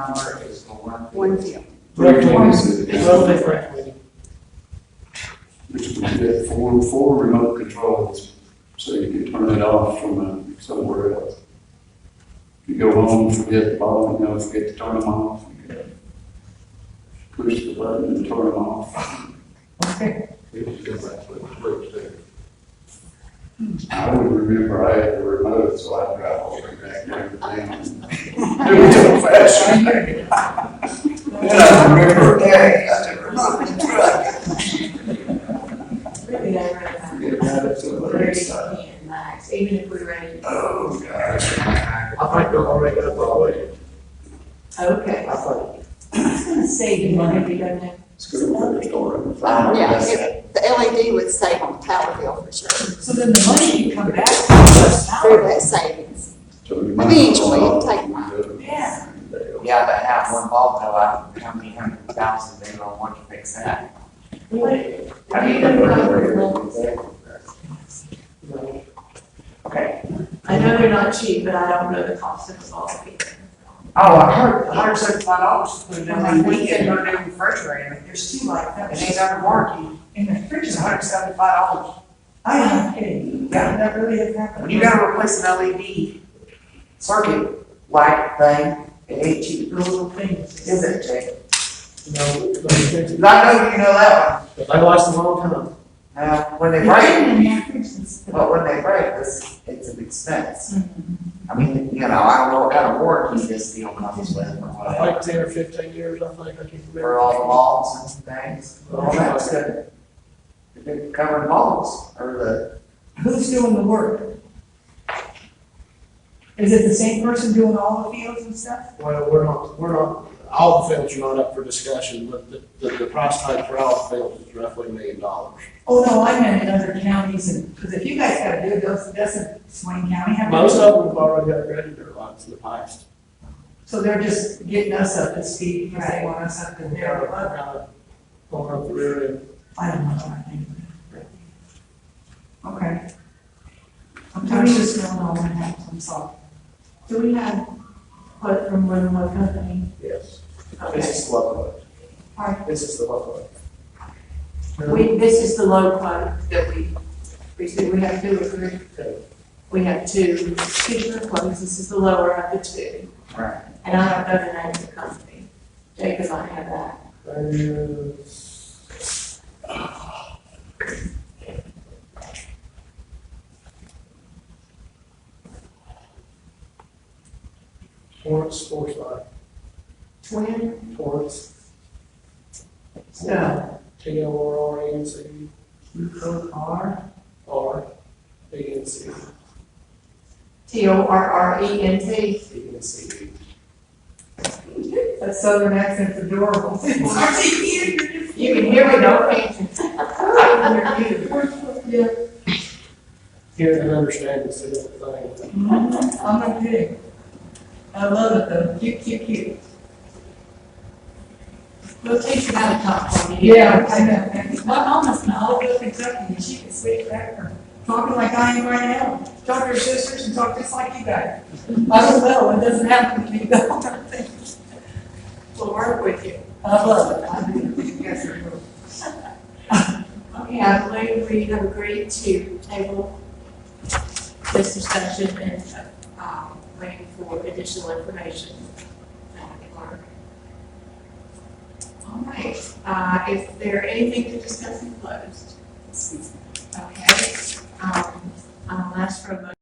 Summer is the one. One zero. Recommend is the- Road lift rec meeting. Which would be that four, four remote controls, so you can turn it off from uh, somewhere else. You go home, forget the ball, you know, forget to turn them off. you can Push the button and turn them off. I would remember I had the remote, so I'd drive all the way back there to town. It was so fast. Then I remember, hey, I never mind. Really, I read that. Forget about it, somebody Thirty decided. and max, even if we ran. Oh, gosh. I might go, I'll make it up all the way. Okay. I think. It's gonna save you money if you don't have. It's going to be a store. Yeah, it- the LED would save on the power bill for sure, So then the money can come back. to us. through that savings. I mean, each way you take mine. Yeah. Yeah, but have one bulb go out, how many hundred thousand, they don't want to fix that. What- I mean, they're not- Okay. I know they're not cheap, but I don't know the cost of all of it. Oh, I heard, hundred seventy-five dollars, for them on the weekend, her new refrigerator, there's two like that, and she's under warranty, and the fridge is hundred seventy-five dollars. I am kidding. Yeah. That really has happened. When you gotta replace an LED circuit light thing, it ain't cheap, The Little things. is it, Jay? You know, it's gonna be tricky. 'Cause I know you know that one. But I lost a long time. Uh, when they break, but when they break, it's, it's an expense. I mean, you know, I don't know what kind of warranty this deal comes with or whatever, uh, Like ten or fifteen years, I think, I can't for remember. all the bulbs and things, all that stuff. Well, If they're covering bulbs or Who's doing the work? Is it the same person doing all the fields and stuff? we're not, we're not, all the fields are not up for discussion, but the, the, the price tag for all the fields is roughly a million dollars. Oh, no, I meant in other counties and, because if you guys gotta do it, does- doesn't Swain County have? to do it? Most of them have already upgraded their lights in the past. So they're just getting us up to speed because they want us up in there. Uh, Going up the rear end. I don't know what I think. Okay. I'm Do we- just don't know what happens, I'm sorry. Do we have quote from more than one company? Yes. This Okay. is the local one. Hi. This is the local one. We, this is the low quote that we received. We have two or three. Okay. We have two cheaper quotes. This is the lower of the two. the, right, And I don't know the name of the company. Jacob might have that. There's- Torrance, Forsyth, Twin? Torrance, No. T O R R A N C You go far. R A N C T O R R E N T. E N C E. That southern accent's adorable. You can hear me, don't you? Yeah, Hearing and understanding is the different thing. I'm not kidding. I love it though, cute, cute, cute. We'll teach you how to talk for me. I know. My mama's from Oliver, Kentucky, and she can speak better, talking like I am right now. Talk to her sisters and talk just like you guys. I don't know, it doesn't happen to me though. I don't think. We'll work with you. I love it, I do, you guys are cool. Okay, I believe we have agreed to table this discussion and, um, waiting for additional information. All right, uh, is there anything to discuss in closed? Okay, um, I'll ask for a motion